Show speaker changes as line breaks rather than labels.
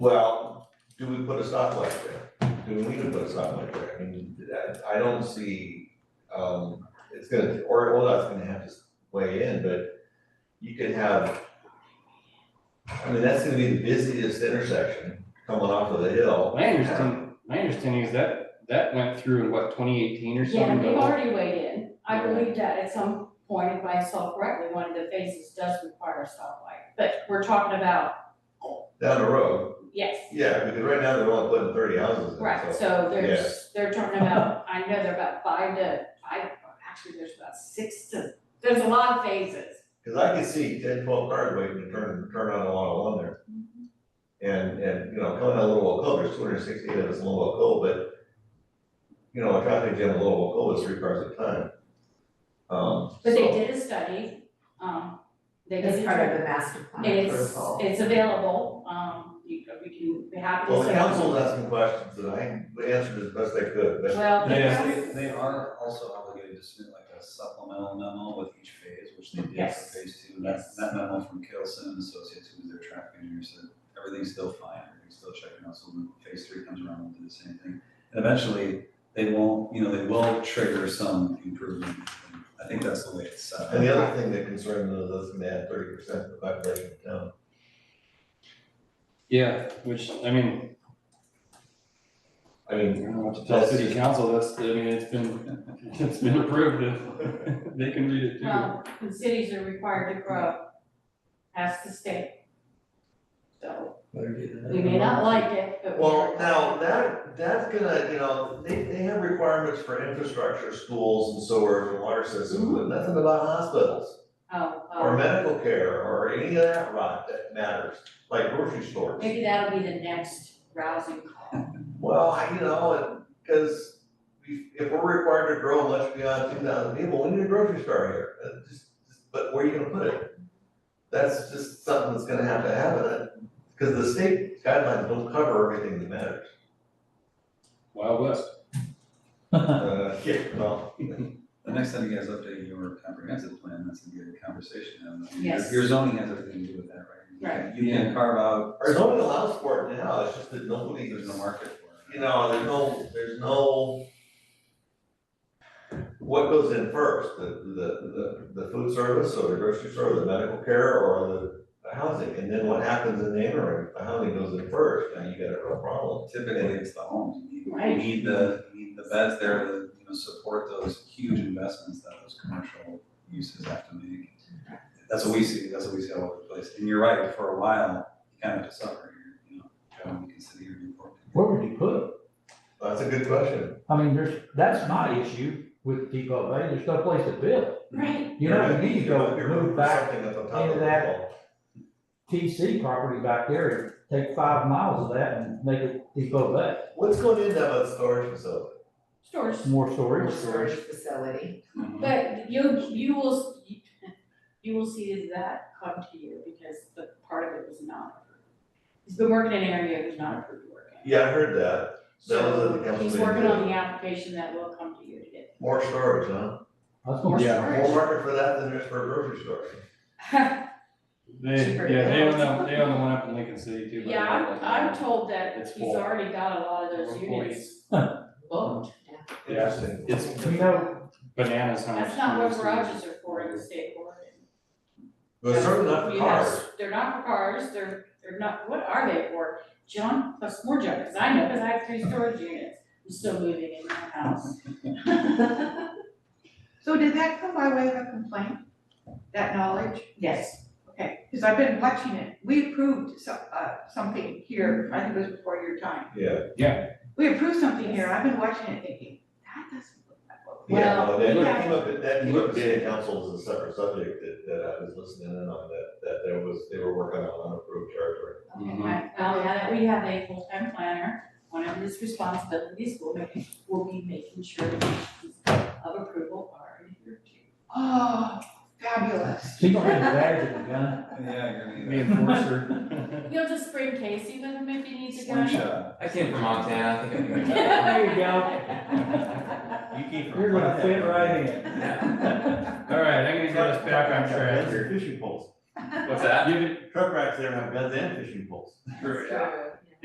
Well, do we put a stoplight there? Do we need to put a stoplight there? I mean, that- I don't see, um, it's gonna, or ODOT's gonna have to weigh in, but you could have, I mean, that's gonna be the busiest intersection coming off of the hill.
My understanding, my understanding is that, that went through in what, twenty eighteen or
Yeah,
something?
they've
but-
already weighed in. I believe that at some point, if I saw correctly, one of the phases does require a stoplight. But we're talking about,
Down the road,
yes,
yeah, because right now they're only putting thirty houses in,
right,
so.
so there's, they're talking about, I know they're about five to, five, actually, there's about six to, there's a lot of phases.
Cause I could see ten, twelve cars waiting to turn, turn on a lot of one there. And, and, you know, coming out of Little Oak Cove, there's two hundred and sixty-eight of us in Little Oak Cove, but, you know, a traffic jam in Little Oak Cove is three cars at a time. Um,
But they
so-
did a study, um, they did.
It's
a
part of
study.
the master plan
It's,
protocol.
it's available, um, you, we can, we happy to.
Well, the
say-
council's asking questions and I answered as best I could, but
Well, the
They,
council-
they are also obligated to submit like a supplemental memo with each phase, which they did
Yes.
for phase two. And That,
Yes.
that memo from Kelson and Associates, who was their traffic engineer, said everything's still fine, everything's still checking out. So when phase three comes around, we'll do the same thing. And eventually, they won't, you know, they will trigger some improvement. And I think that's the way it's set up.
and the other thing that concerned me was gonna add thirty percent of the population in town.
Yeah, which, I mean,
I
I
mean,
don't know what to tell city council, that's, I mean, it's been, it's been approved, and they can read it too.
Well, the cities are required to grow, ask the state. So, we may not like it, but we
well,
are-
now that, that's gonna, you know, they, they have requirements for infrastructure, schools and sewers and water systems, but nothing about hospitals.
Oh,
or
oh,
medical care, or any of that rot that matters, like grocery stores.
maybe that'll be the next rousing call.
Well, I- you know, and, cause we, if we're required to grow much beyond two thousand people, we need a grocery store here, Uh, just, just- but where are you gonna put it? That's just something that's gonna have to happen, cause the state guidelines don't cover everything that matters.
Wild West.
Uh, yeah, well,
The next time you guys update your comprehensive plan, that's a good conversation. to have. Your-
Yes.
Your zoning has everything to do with that, right?
Right.
You can carve out,
our zoning allows for it now, it's just that nobody,
there's no market for it.
you know, there's no, there's no. What goes in first, the, the, the, the food service or the grocery store, the medical care or the, the housing? And then what happens in the interim, the housing goes in first, now you got a real problem.
Typically, it's the homes, you need, you
Right.
need the, you need the beds there to, you know, support those huge investments that those commercial uses have to make. That's what we see, that's what we see all over the place, and you're right, for a while, you kind of have to suffer here, you know, trying to consider your report.
Where would you put it?
That's a good question.
I mean, there's, that's my issue with Depot Bay, there's no place to build.
Right,
You know, you need to go
You're
move back
Something that's on top of
into
the
that-
wall.
TC property back there, and take five miles of that and make it Depot Bay,
What's going into that storage facility?
stores,
more storage.
Storage facility.
but you, you will, you will see that come to you because the part of it was not approved. He's been working in an area that was not approved work. in.
Yeah, I heard that, That was at the
So
council
he's
meeting.
working on the application that will come to you to get.
more storage, huh?
That's gonna be
Yeah.
More market for that than there's for a grocery store.
They,
Cheaper.
yeah, they own the, they own the one up in Lincoln City too. but-
Yeah, I'm, I'm told that
It's
he's
full.
already got a lot of those
We're fully-
units booked.
Yeah.
Interesting.
It's
You know,
bananas how much.
That's not what
space
garages are for in the state of Oregon.
But it's certainly not for
You have-
cars.
They're not for cars, they're, they're not, what are they for? Junk plus more junk, cause I know, cause I have three storage units, I'm still moving in my house.
So did that come by way of a complaint, that knowledge?
Yes,
Okay, because I've been watching it. We approved so, uh, something here, I think it was before your time.
Yeah.
We approved something here, I've been watching it thinking, that doesn't look like what we.
Yeah, no, that
Well,
came up, at- that came up at
look-
city council as a separate subject that, that I was listening in on, that, that there was, they were working on unapproved territory.
okay,
Mhm.
right, well, now that we have a full-time planner, one of his responsibilities will be, will be making sure that these of approval are adhered to.
Oh, fabulous.
she's gonna have a badge in the gun.
Yeah, you're gonna
The
need
enforcer.
You'll just bring Casey with him if you need
a
to go.
slingshot.
I came from Montana, I think I can.
There you go,
You came
you're gonna fit right in.
All right, I'm gonna get us back on track
Guns and
here.
Fishing poles.
What's that?
Give it,
Truck racks there have guns and fishing poles.
True, yeah.
True.